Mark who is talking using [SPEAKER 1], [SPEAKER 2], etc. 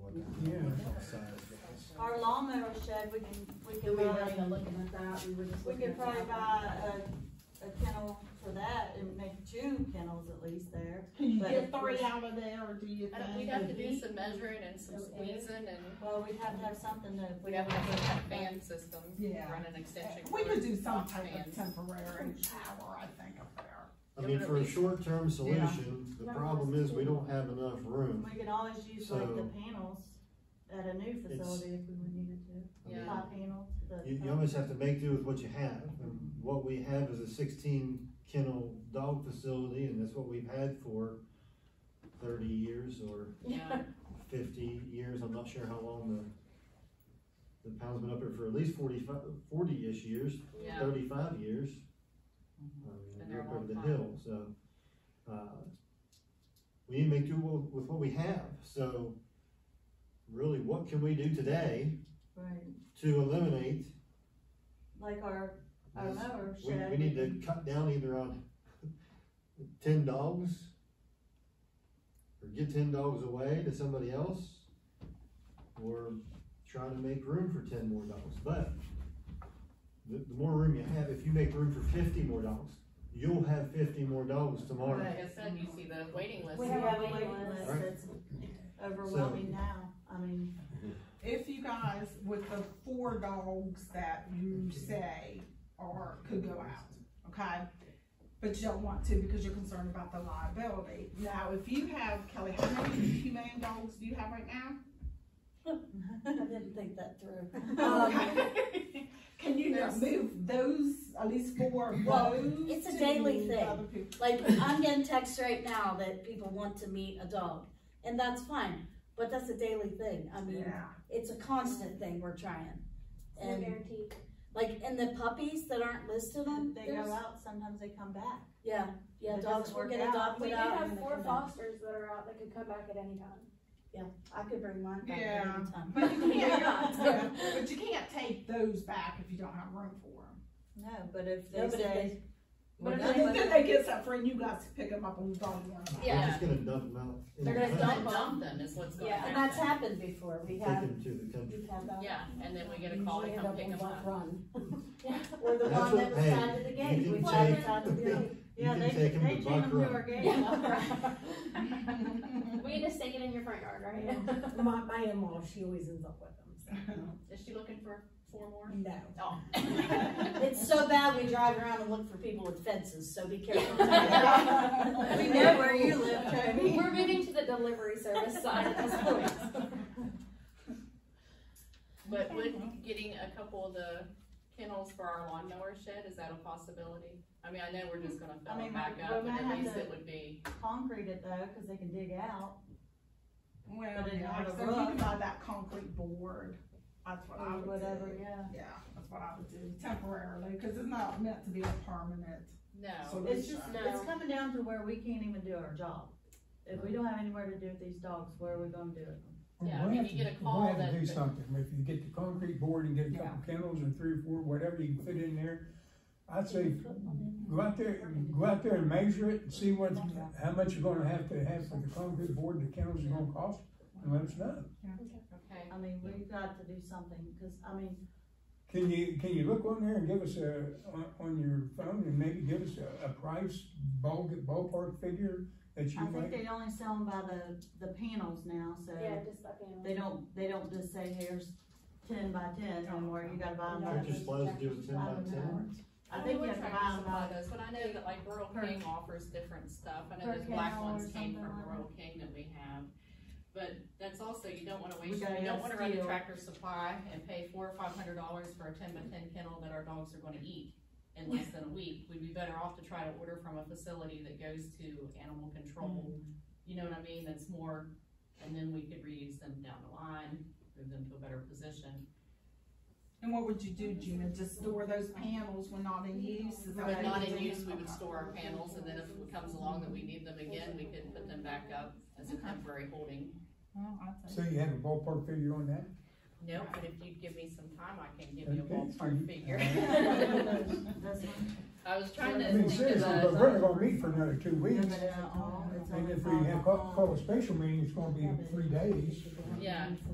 [SPEAKER 1] our lawnmower shed, we can, we
[SPEAKER 2] Do
[SPEAKER 1] can
[SPEAKER 2] we weren't
[SPEAKER 1] buy,
[SPEAKER 2] even looking at that, we were just
[SPEAKER 1] we
[SPEAKER 2] looking
[SPEAKER 1] could
[SPEAKER 2] at
[SPEAKER 1] probably
[SPEAKER 2] that.
[SPEAKER 1] buy a, a kennel for that and make two kennels at least there.
[SPEAKER 3] Can you
[SPEAKER 1] But
[SPEAKER 3] get
[SPEAKER 1] of course-
[SPEAKER 3] three out of there, or do you
[SPEAKER 4] I don't, we'd
[SPEAKER 3] think?
[SPEAKER 4] have to do some measuring and some squeezing and
[SPEAKER 1] Well, we'd have to have something to.
[SPEAKER 4] we'd have to have a fan system,
[SPEAKER 3] Yeah.
[SPEAKER 4] run an extension.
[SPEAKER 3] We
[SPEAKER 4] cord,
[SPEAKER 3] could do some
[SPEAKER 4] lock
[SPEAKER 3] type of
[SPEAKER 4] fans.
[SPEAKER 3] temporary shower, I think, up there.
[SPEAKER 5] I mean, for a short-term solution, the problem is we don't have enough room.
[SPEAKER 1] We can always use like the
[SPEAKER 5] So-
[SPEAKER 1] panels at a new facility if we would needed to,
[SPEAKER 5] I mean,
[SPEAKER 4] Yeah.
[SPEAKER 1] five panels. the-
[SPEAKER 5] You, you almost have to make do with what you have, and what we have is a sixteen kennel dog facility, and that's what we've had for thirty years or
[SPEAKER 4] Yeah,
[SPEAKER 5] fifty years, I'm not sure how long the, the pound's been up there for at least forty-five, forty-ish years,
[SPEAKER 4] yeah, Mm-hmm.
[SPEAKER 5] thirty-five years. I
[SPEAKER 4] Been
[SPEAKER 5] mean,
[SPEAKER 4] there a
[SPEAKER 5] up over
[SPEAKER 4] long
[SPEAKER 5] the
[SPEAKER 4] time.
[SPEAKER 5] hill, so, uh, we need to make do wi- with what we have, so really, what can we do today
[SPEAKER 1] Right,
[SPEAKER 5] to eliminate
[SPEAKER 1] like our, our
[SPEAKER 5] this?
[SPEAKER 1] mower
[SPEAKER 5] We,
[SPEAKER 1] shed.
[SPEAKER 5] we need to cut down either on ten dogs, or get ten dogs away to somebody else, or try to make room for ten more dogs, but the, the more room you have, if you make room for fifty more dogs, you'll have fifty more dogs tomorrow.
[SPEAKER 4] like I said, you see the waiting list.
[SPEAKER 1] We
[SPEAKER 2] have
[SPEAKER 1] have a
[SPEAKER 2] waiting
[SPEAKER 1] waiting
[SPEAKER 2] list.
[SPEAKER 1] list
[SPEAKER 5] Right.
[SPEAKER 1] that's overwhelming now, I mean,
[SPEAKER 3] If you guys, with the four dogs that you say are, could go out, okay? But you don't want to because you're concerned about the liability. Now, if you have, Kelly, how many humane dogs do you have right now?
[SPEAKER 2] I didn't think that through.
[SPEAKER 3] Okay. Can you
[SPEAKER 2] Um, There's-
[SPEAKER 3] move those, at least four of
[SPEAKER 2] Well,
[SPEAKER 3] those?
[SPEAKER 2] it's a
[SPEAKER 3] to
[SPEAKER 2] daily thing.
[SPEAKER 3] other people?
[SPEAKER 2] Like, I'm getting texts right now that people want to meet a dog, and that's fine, but that's a daily thing, I mean,
[SPEAKER 3] Yeah.
[SPEAKER 2] it's a constant thing we're trying.
[SPEAKER 6] No
[SPEAKER 2] And,
[SPEAKER 6] guarantee.
[SPEAKER 2] like, and the puppies that aren't listed on,
[SPEAKER 1] they go
[SPEAKER 2] there's,
[SPEAKER 1] out, sometimes they come back.
[SPEAKER 2] yeah, yeah,
[SPEAKER 1] It doesn't
[SPEAKER 2] dogs will
[SPEAKER 1] work
[SPEAKER 2] get
[SPEAKER 1] out.
[SPEAKER 2] adopted
[SPEAKER 6] We do
[SPEAKER 2] out. and
[SPEAKER 6] have
[SPEAKER 2] they
[SPEAKER 6] four
[SPEAKER 2] come back.
[SPEAKER 6] fosters that are out that could come back at any time.
[SPEAKER 2] I could bring mine back
[SPEAKER 3] Yeah.
[SPEAKER 2] anytime.
[SPEAKER 3] But you can't, yeah, but you can't take those back if you don't have room for them.
[SPEAKER 1] No, but if
[SPEAKER 2] No,
[SPEAKER 1] they
[SPEAKER 2] but if
[SPEAKER 1] say,
[SPEAKER 2] they-
[SPEAKER 1] we're
[SPEAKER 2] but if
[SPEAKER 1] done
[SPEAKER 2] they-
[SPEAKER 1] with
[SPEAKER 3] Then
[SPEAKER 1] it,
[SPEAKER 3] they get something for you guys to pick them up and dog them.
[SPEAKER 5] We're
[SPEAKER 4] Yeah.
[SPEAKER 5] just gonna dump them out. in
[SPEAKER 2] They're
[SPEAKER 5] the
[SPEAKER 2] gonna
[SPEAKER 4] Just
[SPEAKER 5] country.
[SPEAKER 4] Don't dump them is what's gonna
[SPEAKER 6] Yeah,
[SPEAKER 2] And that's
[SPEAKER 4] happen.
[SPEAKER 2] happened before, we
[SPEAKER 5] Take
[SPEAKER 2] have,
[SPEAKER 5] them to the country.
[SPEAKER 2] we've had that.
[SPEAKER 4] Yeah, and then we get a call to
[SPEAKER 2] Usually
[SPEAKER 4] come
[SPEAKER 2] end
[SPEAKER 4] pick
[SPEAKER 2] in
[SPEAKER 4] them
[SPEAKER 2] one
[SPEAKER 4] up.
[SPEAKER 2] Run. Or the
[SPEAKER 5] That's
[SPEAKER 2] one that
[SPEAKER 5] what-
[SPEAKER 2] was
[SPEAKER 5] hey,
[SPEAKER 2] tied to the
[SPEAKER 5] you
[SPEAKER 2] gate,
[SPEAKER 5] can
[SPEAKER 2] we
[SPEAKER 5] take-
[SPEAKER 2] tied it tied to the gate.
[SPEAKER 5] You
[SPEAKER 1] yeah,
[SPEAKER 5] can
[SPEAKER 1] they, they
[SPEAKER 5] take 'em to
[SPEAKER 1] chain them
[SPEAKER 5] Buck
[SPEAKER 1] to
[SPEAKER 5] Run.
[SPEAKER 1] our gate.
[SPEAKER 2] Yeah.
[SPEAKER 6] We just take it in your front yard, right?
[SPEAKER 7] My, my in-law, she always ends up with them.
[SPEAKER 4] Is she looking for four more?
[SPEAKER 7] No.
[SPEAKER 4] Oh.
[SPEAKER 2] It's so bad we drive around and look for people with fences, so be careful.
[SPEAKER 1] We know where you live, Toby.
[SPEAKER 6] We're moving to the delivery service side at this point.
[SPEAKER 4] But with getting a couple of the kennels for our lawnmower shed, is that a possibility? I mean, I know we're just gonna
[SPEAKER 1] I
[SPEAKER 4] fill them
[SPEAKER 1] mean,
[SPEAKER 4] back
[SPEAKER 1] we-
[SPEAKER 4] up,
[SPEAKER 1] we
[SPEAKER 4] but
[SPEAKER 1] might
[SPEAKER 4] at
[SPEAKER 1] have
[SPEAKER 4] least
[SPEAKER 1] to-
[SPEAKER 4] it would be,
[SPEAKER 1] Concrete it though, cause they can dig out.
[SPEAKER 3] Well,
[SPEAKER 1] But it
[SPEAKER 3] yeah,
[SPEAKER 1] had a
[SPEAKER 3] so you can
[SPEAKER 1] roof.
[SPEAKER 3] buy that concrete board, that's what I
[SPEAKER 1] Or
[SPEAKER 3] would do.
[SPEAKER 1] whatever, yeah.
[SPEAKER 3] Yeah, that's what I would do temporarily, cause it's not meant to be a permanent
[SPEAKER 4] no,
[SPEAKER 3] solution.
[SPEAKER 1] It's just,
[SPEAKER 6] No.
[SPEAKER 1] it's coming down to where we can't even do our job. If we don't have anywhere to do with these dogs, where are we gonna do it?
[SPEAKER 4] yeah, I
[SPEAKER 8] We'll
[SPEAKER 4] mean,
[SPEAKER 8] have
[SPEAKER 4] you get a
[SPEAKER 8] to-
[SPEAKER 4] call
[SPEAKER 8] We'll have
[SPEAKER 4] that-
[SPEAKER 8] to do something, if you get the concrete board and get a couple kennels and three or four, whatever you can fit in there, I'd say, go out there, go out there and measure it and see what, how much you're gonna have to have for the concrete board and the kennels are gonna cost, and let us know.
[SPEAKER 4] okay.
[SPEAKER 1] I mean, we've got to do something, cause I mean,
[SPEAKER 8] Can you, can you look on there and give us a, on, on your phone and maybe give us a, a price, ball, ballpark figure that you
[SPEAKER 1] I think
[SPEAKER 8] might?
[SPEAKER 1] they only sell them by the, the panels now, so
[SPEAKER 6] Yeah, just that panel.
[SPEAKER 1] they don't, they don't just say here's ten by ten anymore, you gotta
[SPEAKER 2] um,
[SPEAKER 1] buy them. by
[SPEAKER 5] Aren't you
[SPEAKER 1] the-
[SPEAKER 5] supposed to do a ten
[SPEAKER 1] I
[SPEAKER 5] by
[SPEAKER 1] don't
[SPEAKER 5] ten?
[SPEAKER 1] know. I think you have to buy them by
[SPEAKER 4] buy those, but I know that like Rural
[SPEAKER 1] Per-
[SPEAKER 4] King offers different stuff, I know
[SPEAKER 1] per
[SPEAKER 4] those black
[SPEAKER 1] kennel or
[SPEAKER 4] ones came
[SPEAKER 1] something
[SPEAKER 4] from
[SPEAKER 1] like
[SPEAKER 4] Rural King that we have. But that's also, you don't wanna waste,
[SPEAKER 1] gotta
[SPEAKER 4] you don't
[SPEAKER 1] have
[SPEAKER 4] wanna run to
[SPEAKER 1] steel.
[SPEAKER 4] Tractor Supply and pay four or five hundred dollars for a ten by ten kennel that our dogs are gonna eat in less than a week, we'd be better off to try to order from a facility that goes to animal control,
[SPEAKER 1] Mm-hmm.
[SPEAKER 4] you know what I mean, that's more, and then we could reuse them down the line, move them to a better position.
[SPEAKER 3] And what would you do, Gina, just store those panels when not in use? Is that
[SPEAKER 4] But
[SPEAKER 3] what
[SPEAKER 4] not
[SPEAKER 3] you
[SPEAKER 4] in
[SPEAKER 3] do?
[SPEAKER 4] use, we would
[SPEAKER 3] Okay.
[SPEAKER 4] store our panels, and then if it comes along that we need them again, we could put them back up as a temporary holding.
[SPEAKER 3] Well, I'd say-
[SPEAKER 8] So you have a ballpark figure on that?
[SPEAKER 4] No, but if you'd give me some time, I can give you a
[SPEAKER 8] Okay.
[SPEAKER 4] ballpark figure.
[SPEAKER 1] This one,
[SPEAKER 4] I was trying
[SPEAKER 8] I mean,
[SPEAKER 4] to think
[SPEAKER 8] seriously, but
[SPEAKER 4] of
[SPEAKER 8] we're not gonna meet for another two
[SPEAKER 1] yeah,
[SPEAKER 8] weeks.
[SPEAKER 1] but it's all- it's
[SPEAKER 8] And
[SPEAKER 1] only
[SPEAKER 8] if we
[SPEAKER 1] five
[SPEAKER 8] have,
[SPEAKER 1] by
[SPEAKER 8] call, call a special meeting, it's gonna be three days.
[SPEAKER 4] a, yeah.